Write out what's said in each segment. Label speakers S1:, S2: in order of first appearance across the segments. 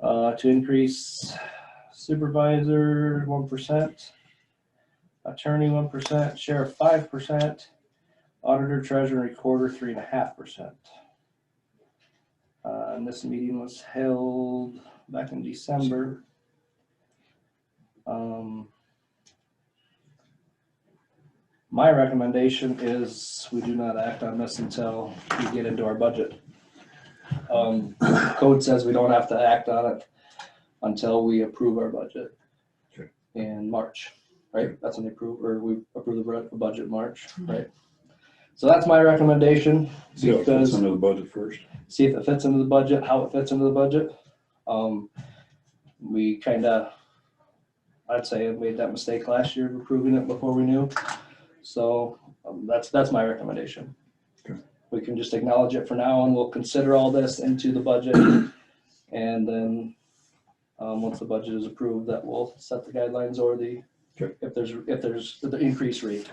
S1: uh, to increase supervisor one percent, attorney one percent, sheriff five percent, auditor, treasurer, recorder three and a half percent. Uh, and this meeting was held back in December. Um, my recommendation is we do not act on this until we get into our budget. Um, code says we don't have to act on it until we approve our budget
S2: Okay.
S1: in March, right? That's when they approve, or we approve the bud- the budget in March, right? So that's my recommendation.
S2: See if that's
S1: because-
S2: under the budget first.
S1: see if it fits into the budget, how it fits into the budget. Um, we kind of, I'd say, made that mistake last year of approving it before we knew. So um, that's, that's my recommendation.
S2: Okay.
S1: We can just acknowledge it for now and we'll consider all this into the budget. And then, um, once the budget is approved, that will set the guidelines or the,
S2: Okay.
S1: if there's, if there's the increase rate.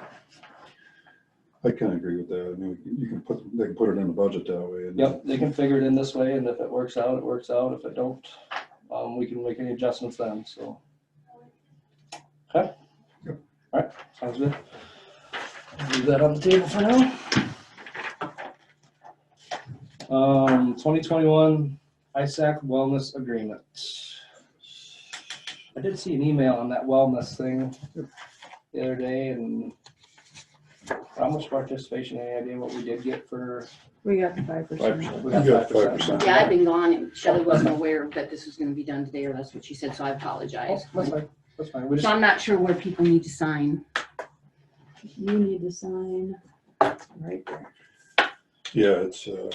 S2: I kind of agree with that. I mean, you can put, they can put it in the budget that way. and-
S1: Yep, they can figure it in this way, and if it works out, it works out. If it don't, um, we can make any adjustments then, so. Okay?
S2: Yep.
S1: Alright, sounds good. Leave that on the table for now. Um, twenty twenty-one ISAC wellness agreement. I did see an email on that wellness thing the other day, and how much participation, any idea what we did get for
S3: We got the five percent.
S1: we
S2: You
S1: got
S2: got
S1: 5%.
S2: 5%.
S4: Yeah, I've been gone and Shelley wasn't aware that this was gonna be done today, or that's what she said, so I
S1: Oh,
S4: apologize.
S1: That's fine, that's fine. We
S4: So
S1: just,
S4: I'm not sure where people need to sign.
S3: You need to sign right there.
S2: Yeah, it's, uh,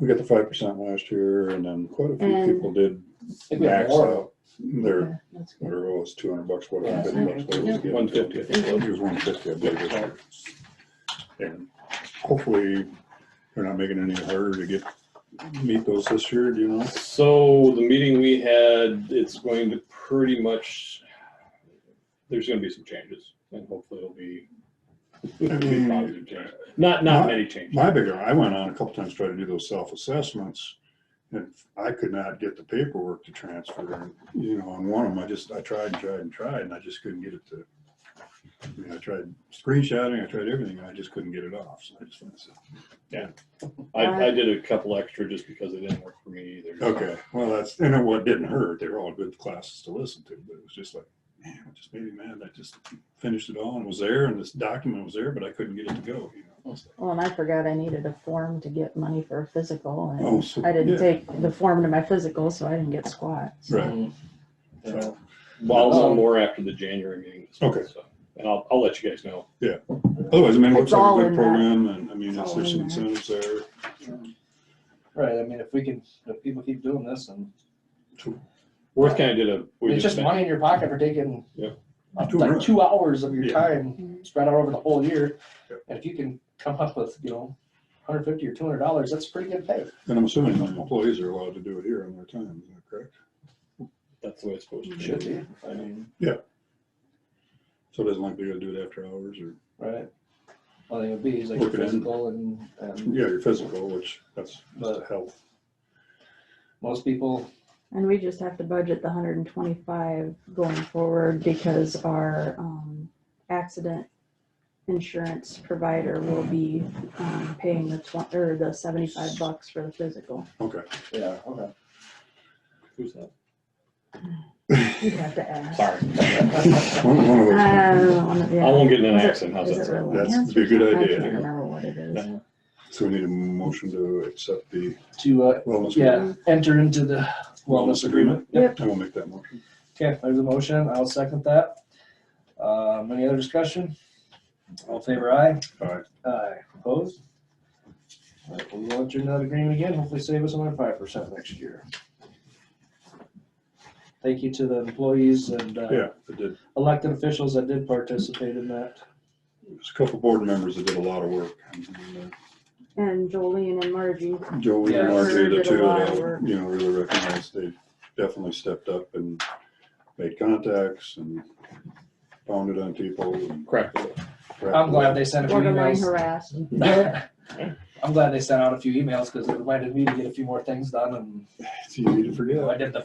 S2: we got the five percent last year and then quite a few
S3: And-
S2: people did
S1: I think we have
S2: max
S1: more.
S2: out their,
S3: Yeah, that's good.
S2: whatever it was, two hundred bucks,
S1: Yeah.
S2: whatever. 150 bucks, whatever it was.
S5: One fifty, I think it was.
S2: It was one fifty, I believe. this year. And hopefully they're not making it any harder to get, meet those this year, do you know?
S5: So the meeting we had, it's going to pretty much, there's gonna be some changes and hopefully it'll be it'll be positive changes. Not, not many changes.
S2: Mm. My bigger, I went on a couple times, tried to do those self-assessments, and I could not get the paperwork to transfer, and, you know, on one of them, I just, I tried and tried and tried, and I just couldn't get it to. I mean, I tried screenshotting, I tried everything, and I just couldn't get it off, so I just, went and said,
S5: I, I did a couple extra just because it didn't work for me either.
S2: okay, well, that's, and it wa- didn't hurt, they were all good classes to listen to, but it was just like, man, it just made me mad, I just finished it all and was there, and this document was there, but I couldn't get it to go, you know. It's like,
S3: Well, and I forgot I needed a form to get money for a physical
S2: Oh,
S3: and
S2: so-
S3: I
S2: yeah.
S3: didn't take the form to my physical, so I didn't get squat. so.
S2: Right.
S1: Mm.
S4: Mm-hmm.
S1: Yeah.
S5: Well, I'll
S1: Um,
S5: know more after the January meeting.
S2: Okay.
S5: So, And I'll, I'll let you guys know.
S2: Otherwise, I mean, it looks
S3: It's
S2: like
S3: all
S2: a good
S3: in that.
S2: program, and I mean,
S3: It's
S2: it's-
S3: all
S2: there's some
S3: in there.
S2: incentives there.
S1: Right, I mean, if we can, if people keep doing this and
S5: Worth kind of did a. we
S1: it's
S5: did
S1: just
S5: a-
S1: money in your pocket for taking
S5: Yeah.
S1: up
S2: Two
S1: like
S2: months.
S1: two hours of your
S2: Yeah.
S4: Mm-hmm.
S1: time spread out over the whole year.
S2: Yeah.
S1: And if you can come up with, you know, hundred fifty or two hundred dollars, that's pretty good pay.
S2: And I'm assuming the employees are allowed to do it here on their time, is that correct?
S5: That's the way it's supposed to be.
S1: Should be, I mean,
S2: So it doesn't like they gotta do it after hours or,
S1: right? Well, it would be, it's like
S2: Working in.
S1: physical and, and
S2: yeah, your physical, which that's just a health.
S1: most people,
S3: And we just have to budget the hundred and twenty-five going forward because our, um, accident insurance provider will be, um, paying the twen- or the seventy-five bucks for the physical.
S2: Okay.
S1: yeah, okay.
S5: Who's that?
S3: You'd have to ask.
S5: Sorry.
S2: One one of those,
S5: I
S3: I
S5: won't get in an accident. How's that sound?
S2: That's a good idea.
S3: I can't remember what it is.
S5: No.
S2: so we need a motion to accept the
S1: To, uh,
S2: wellness.
S1: yeah, enter into the wellness agreement.
S2: Yep. I will make that motion.
S1: Okay, there's a motion. I'll second that. Um, any other discussion? All in favor aye?
S2: Aye.
S1: Aye, opposed? All right, we'll enter that agreement again, hopefully save us another five percent next year. Thank you to the employees and uh,
S2: Yeah, I did,
S1: elected officials that did participate in that.
S2: there's a couple board members that did a lot of work. And,
S3: And Jolene and Margie,
S2: uh, Joey
S1: Yeah.
S2: and Marjorie, the
S3: Did a
S2: two,
S3: lot of
S2: that I,
S3: work.
S2: you know, really recognized, they definitely stepped up and made contacts and pounded on people. and-
S5: Correct.
S1: I'm glad they sent a few
S3: borderline
S1: emails.
S3: harassed.
S1: I'm glad they sent out a few emails because it reminded me to get a few more things done
S2: It's easy to forget.
S1: and I did the